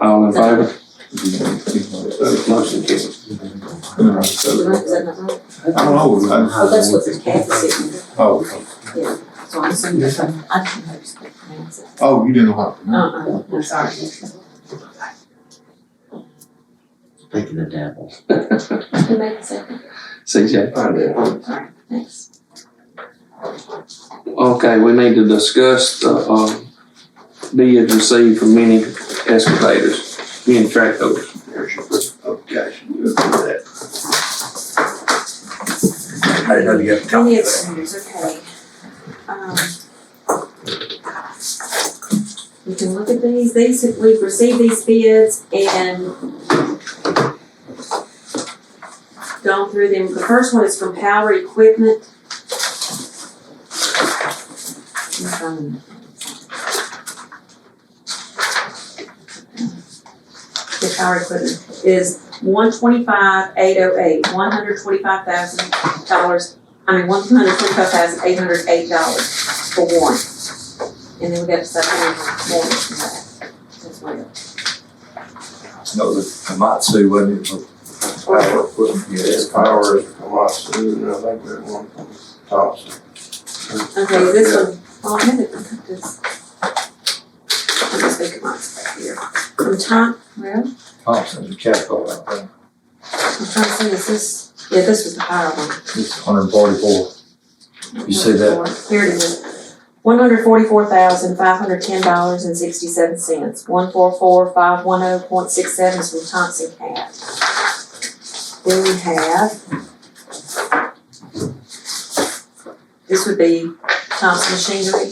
All in favor? I Those motion carries. Is that not right? don't know. what that- Oh, that's what the cat is sitting there. Oh, So I'm assuming that's, I don't know how to pronounce it. oh, you didn't know how to pronounce Uh-uh, I'm sorry. Thinking of devil. Who made the second? CJ Fidel. Thanks. Okay, we need to discuss the, uh, bids received from many excavators, many tractors. There's your application, you approve that. I didn't know you got the Any copy of that. extenders, okay. Um, We can look at these, these, we've received these bids and gone through them. The first one is from Power Equipment. Um, The Power Equipment is one twenty-five, eight oh eight, one hundred twenty-five thousand dollars I mean, one hundred twenty-five thousand eight hundred eight dollars for one. And then we got to supplement more than that as well. No, the Komatsu wasn't it for power equipment? Yeah, It's power is from us, and I think that one from Thompson. Okay, this one, oh, I had it, this. I'm just thinking mine's back here. From Tom, well, I'm Thompson's a capital, I think. trying to see, is this, yeah, this was the higher one. It's hundred and forty-four. You see that? Here it is. One hundred forty-four thousand five hundred ten dollars and sixty-seven cents. One four four five one oh point six seven is from Thompson Cat. Then we have. This would be Thompson Machinery.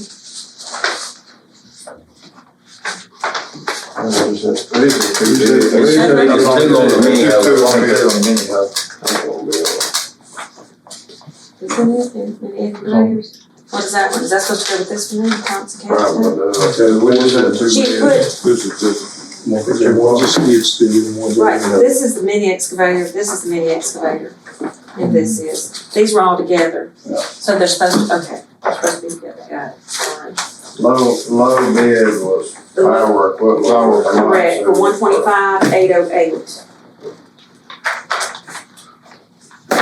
And it was that three, It's that we did. two- it's two on the mini hub. It's only two on the mini hub. I'm gonna be on. This one is, and, and Ed Gray's. What is that one? Is that supposed to go with this one, Thompson Cat? Right, too? well, uh, okay, we just had two She bids. put, This is just. right, this is the mini excavator, this is the mini excavator, and this is, these were all together. So they're supposed to, okay, they're supposed to be together, got it, sorry. Low, low bid was The low- power, equipment. power. from us, Correct, for and- one twenty-five, eight oh eight.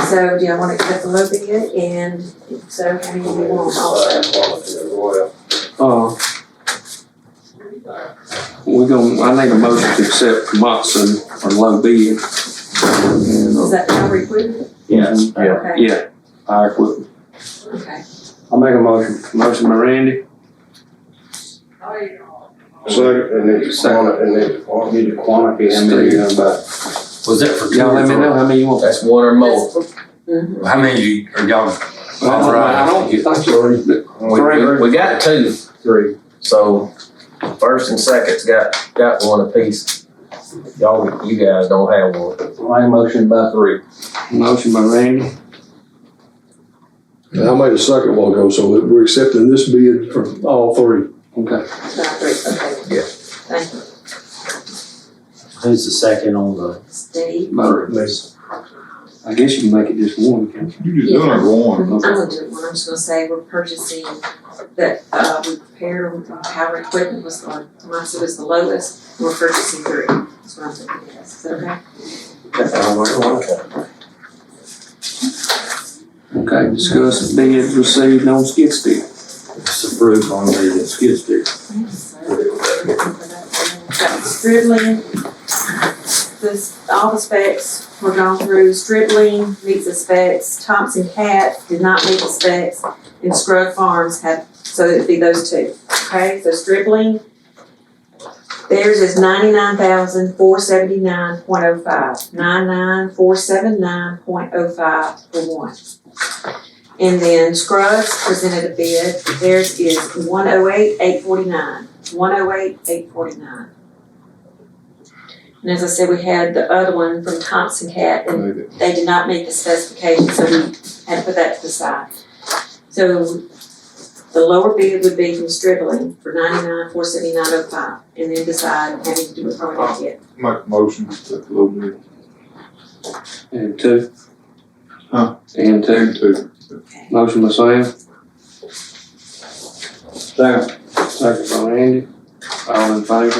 So, do you want to cut the low bid, and if so how many do you want also? Same quality as well. Uh, we gonna, I need a motion to accept Moxon or low bid. And, uh, Is that how we put Yes. Okay, Yeah, fire equipment. okay. I'll make a motion. Motion by Randy, Second, it needs to quanti, it needs to quanti. Need to quantify how many um, you're gonna buy. Was that for two y'all or let me know three? how many you want. That's one or more. Mhm. How many you, are y'all? Uh, I don't, I don't, We, we- we got two, Three. so first and second's got, got one apiece. Y'all, you guys don't have one. My motion by three. motion by Randy, And I made a second while ago, so we're accepting this bid from all three. okay. About three, okay. Yeah. Thank you, Who's the second on the? Steve. Motor. I guess you can make it just one, can't You just done it one. I'm gonna do one, I'm just gonna say we're purchasing that, uh, we prepare power equipment was on, Moxie was the lowest, and we're purchasing three. That's what I'm thinking, yes, is that okay? you? Okay, discuss bids received on skid steer. It's approved on the skid steer. Got Stripling, this, all the specs were gone through, Stripling meets the specs, Thompson Cat did not meet the specs, and Scrub Farms had, so it'd be those two, okay, so Stripling, theirs is ninety-nine thousand four seventy-nine point oh five, nine-nine four seven nine point oh five for one. And then Scruggs presented a bid, theirs is one oh eight, eight forty-nine, one oh eight, eight forty-nine. And as I said, we had the other one from Thompson Cat, and they did not meet the specifications, so we had to put that to the side. So the lower bid would be from Stribling for ninety-nine, four seventy-nine oh five, and then decide how to do it from that yet. Make motion to low bid. And two. Huh? And two. Motion by Sam. Second. Second by Randy. All in favor?